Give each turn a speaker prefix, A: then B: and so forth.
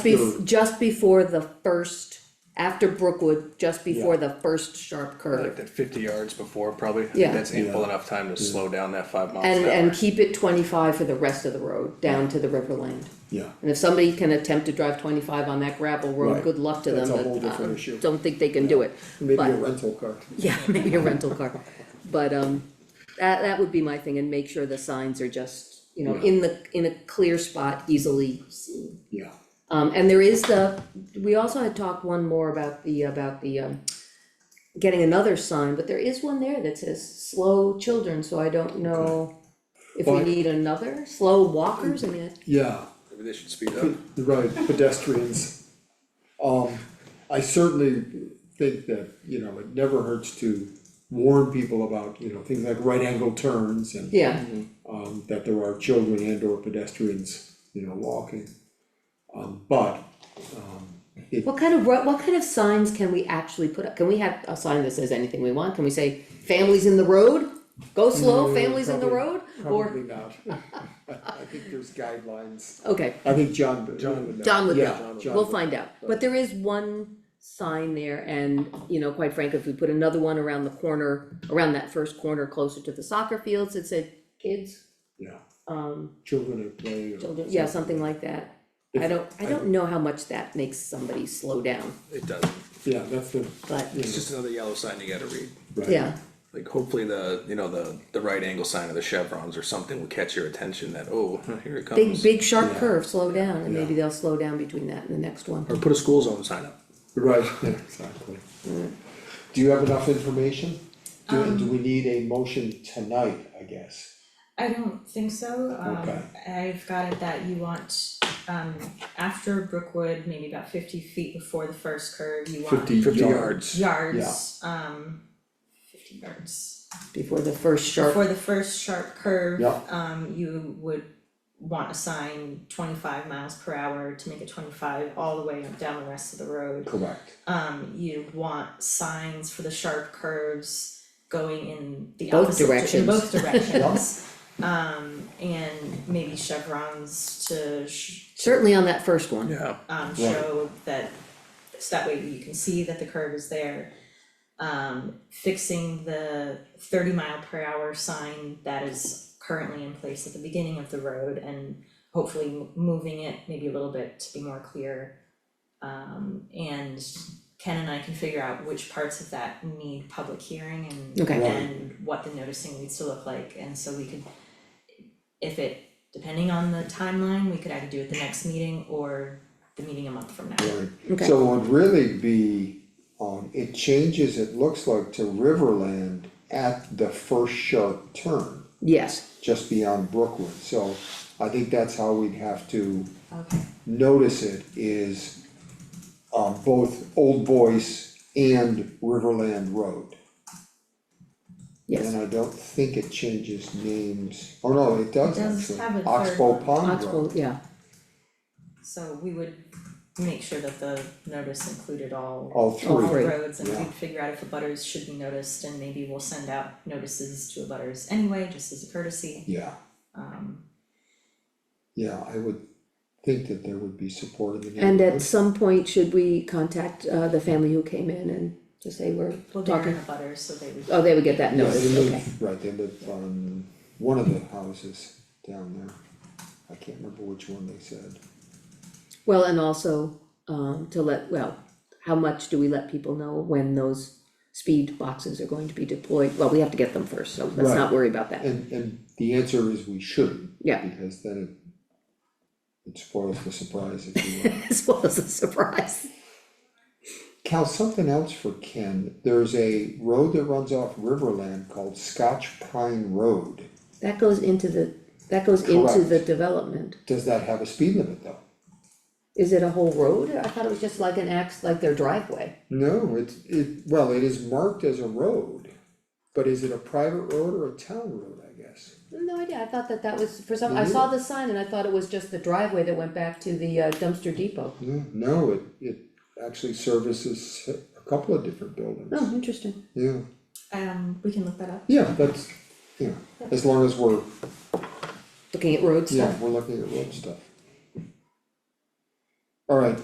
A: Be- just before the first, after Brookwood, just before the first sharp
B: like
A: curve.
B: that fifty yards before, probably, I think
A: Yeah.
B: that's ample enough time to slow down that five miles
A: And,
B: an
A: and
B: hour.
A: keep it twenty-five for the rest of the road, down to the Riverland.
C: Yeah,
A: And if somebody can attempt to drive twenty-five on that gravel road,
C: Right.
A: good luck to them,
C: That's a
A: but
C: whole
A: I
C: different issue.
A: don't think they can do it.
C: maybe
A: But-
C: a rental car.
A: Yeah, maybe a rental car, but, um, that, that would be my thing, and make sure the signs are just, you know, in the, in a clear spot, easily seen.
C: Yeah.
A: Um, and there is the, we also had talked one more about the, about the, um, getting another sign, but there is one there that says slow children, so I don't know if we
C: Well, I-
A: need another, slow walkers, I mean, I-
C: Yeah,
B: Maybe they should speed up.
C: you're right, pedestrians. Um, I certainly think that, you know, it never hurts to warn people about, you know, things like right angle turns and
A: yeah,
C: um, that there are children and or pedestrians, you know, walking. Um, but,
A: what kind of, ro- what kind of signs can we actually put up, can we have a sign that says anything we want, can we say, families in the road? Go slow,
C: No,
A: families in the
C: Mm, probably-
A: road,
C: probably
A: or,
C: not. I think there's guidelines.
A: okay,
C: I think John, John would know.
A: John would
C: Yeah,
A: know.
C: John
A: we'll
C: would-
A: find out, but there is one sign there, and, you know, quite frankly, if we put another one around the corner, around that first corner closer to the soccer fields, that said, kids,
C: Yeah,
A: um,
C: children at play or.
A: children, yeah, something like that. I
C: If-
A: don't, I don't know how much that makes somebody slow down,
B: It doesn't,
C: Yeah, that's the,
A: but,
B: it's just another yellow sign you gotta read.
C: right.
A: yeah,
B: Like hopefully the, you know, the, the right angle sign of the chevrons or something will catch your attention that, oh, here it
A: big,
B: comes.
A: big sharp
C: Yeah.
A: curve, slow down, and maybe
C: Yeah.
A: they'll slow down between that and the next one.
B: Or put a school zone sign up.
C: Right, yeah, exactly. Do you have enough information? Do, do we need a motion tonight, I guess?
D: I don't think so, um,
C: Okay.
D: I've got it that you want, um, after Brookwood, maybe about fifty feet before the first curve, you want
B: Fifty yards.
D: yards, um, fifty yards.
A: Before the first sharp,
D: Before the first sharp curve,
C: Yeah.
D: um, you would want a sign twenty-five miles per hour to make it twenty-five all the way down the rest of the road.
C: Correct.
D: Um, you want signs for the sharp curves going in the
A: Both
D: opposite, di- in
A: directions.
D: both directions. Um, and maybe chevrons to sh-
A: certainly on that first one,
B: Yeah,
D: um,
C: Right.
D: show that, so that way you can see that the curve is there. Um, fixing the thirty mile per hour sign that is currently in place at the beginning of the road and hopefully m- moving it maybe a little bit to be more clear. Um, and Ken and I can figure out which parts of that need public hearing and
A: Okay.
C: Right.
D: and what the noticing needs to look like, and so we could if it, depending on the timeline, we could either do it the next meeting or the meeting a month from now.
A: Okay.
C: So it would really be, um, it changes, it looks like to Riverland at the first sharp turn,
A: yes,
C: just beyond Brookwood. So I think that's how we'd have to
D: Okay.
C: notice it is, um, both Old Voice and Riverland Road.
A: yes,
C: And I don't think it changes names, oh no, it does
D: It does
C: actually,
D: have a third
C: Oxbow
D: one.
C: Pond Road,
A: Oxbow, yeah,
D: So we would make sure that the notice included all
A: All
C: all three.
A: three.
D: roads and
C: yeah.
D: we'd figure out if the butters should be noticed and maybe we'll send out notices to the butters anyway, just as a courtesy.
C: Yeah,
D: Um,
C: yeah, I would think that there would be support in the
A: and
C: neighborhood.
A: at some point, should we contact, uh, the family who came in and just say we're
D: well, they're in
A: talking?
D: the butters, so they would.
A: Oh, they would get that
C: Yeah,
A: notice,
C: they live-
A: okay,
C: Right, they live on one of the houses down there, I can't remember which one they said,
A: well, and also, um, to let, well, how much do we let people know when those speed boxes are going to be deployed? Well, we have to get them first, so let's
C: Right.
A: not worry about that,
C: and, and the answer is we shouldn't.
A: Yeah.
C: Because then it, it spoils the surprise if you will.
A: as well as a surprise.
C: Cal, something else for Ken, there's a road that runs off Riverland called Scotch Pine Road.
A: That goes into the, that goes into
C: Correct.
A: the development,
C: Does that have a speed limit though?
A: is it a whole road, I thought it was just like an ax, like their driveway,
C: No, it's, it, well, it is marked as a road, but is it a private road or a town road, I guess?
A: no idea, I thought that that was, for some, I saw the sign and I thought it was just the driveway that went back to the uh, dumpster depot.
C: No, no, it, it actually services a couple of different buildings,
A: Oh, interesting,
C: yeah,
D: Um, we can look that up.
C: yeah, that's, yeah, as long as we're,
A: looking at road stuff.
C: yeah, we're looking at road stuff. All right,